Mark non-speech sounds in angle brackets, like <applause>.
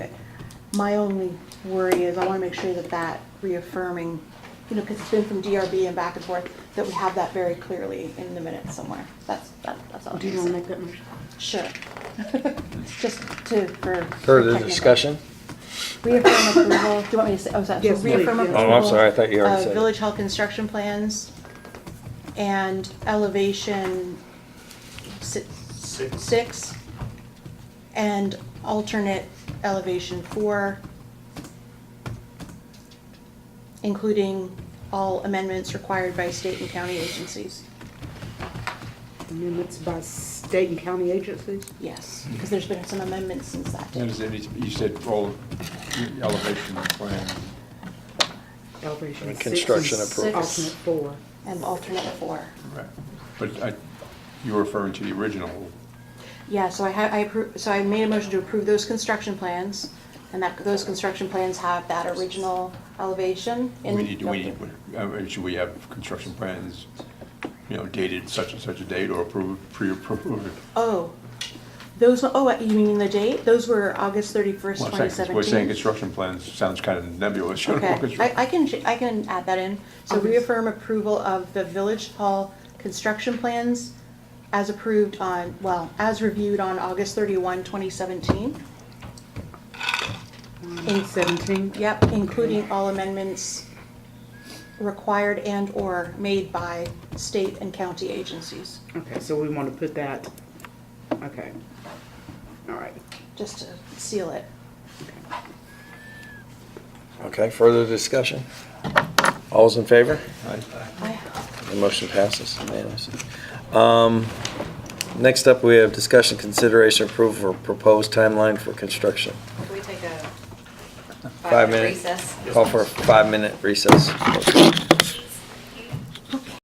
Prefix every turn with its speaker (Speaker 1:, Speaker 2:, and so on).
Speaker 1: My only worry is I want to make sure that that reaffirming, you know, because it's been from DRB and back and forth, that we have that very clearly in the minutes somewhere. That's, that- that's all.
Speaker 2: Do you want to make that motion?
Speaker 1: Sure. Just to, for.
Speaker 3: Further discussion?
Speaker 1: Reaffirm approval, do you want me to say, oh, sorry.
Speaker 2: Yes, please,
Speaker 1: Reaffirm
Speaker 2: yeah.
Speaker 1: approval.
Speaker 3: Oh, I'm sorry, I thought you already
Speaker 1: of
Speaker 3: said it.
Speaker 1: Village Hall construction plans and elevation si-
Speaker 4: Six.
Speaker 1: six and alternate elevation four, including all amendments required by state and county agencies.
Speaker 2: Amendments by state and county agencies?
Speaker 1: Yes, because there's been some amendments since that.
Speaker 4: And
Speaker 1: date.
Speaker 4: is it- you said all elevation plan.
Speaker 2: Elevation
Speaker 3: And
Speaker 2: six and
Speaker 3: construction
Speaker 2: s-
Speaker 3: approvals.
Speaker 2: Alternate four.
Speaker 1: And alternate four.
Speaker 4: Right. But I, you were referring to the original.
Speaker 1: Yeah, so I had, I appro, so I made a motion to approve those construction plans, and that, those construction plans have that original elevation
Speaker 4: We
Speaker 1: in.
Speaker 4: need, do we, uh, should we have construction plans, you know, dated such and such a date or approved, pre-approved?
Speaker 1: Oh, those, oh, you mean the date? Those were August thirty-first,
Speaker 4: Well, I'm
Speaker 1: twenty
Speaker 4: saying-
Speaker 1: seventeen?
Speaker 4: We're saying construction plans sounds kind of nebulous. <laughs> you know,
Speaker 1: Okay,
Speaker 4: construction-
Speaker 1: I, I can, ch- I can add that in. So
Speaker 2: Okay.
Speaker 1: reaffirm approval of the Village Hall construction plans as approved on, well, as reviewed on August thirty-one, twenty seventeen.
Speaker 2: In seventeen?
Speaker 1: Yep, including all amendments required and/or made by state and county agencies,
Speaker 2: Okay, so we want to put that, okay. All right.
Speaker 1: just to seal it.
Speaker 3: Okay, further discussion? All's in favor?
Speaker 1: I-
Speaker 3: The motion passes unanimously. Um, Next up, we have discussion, consideration, approval for proposed timeline for construction.
Speaker 5: Can we take a
Speaker 3: Five
Speaker 5: five-minute
Speaker 3: minutes.
Speaker 5: recess?
Speaker 3: Call for a five-minute recess.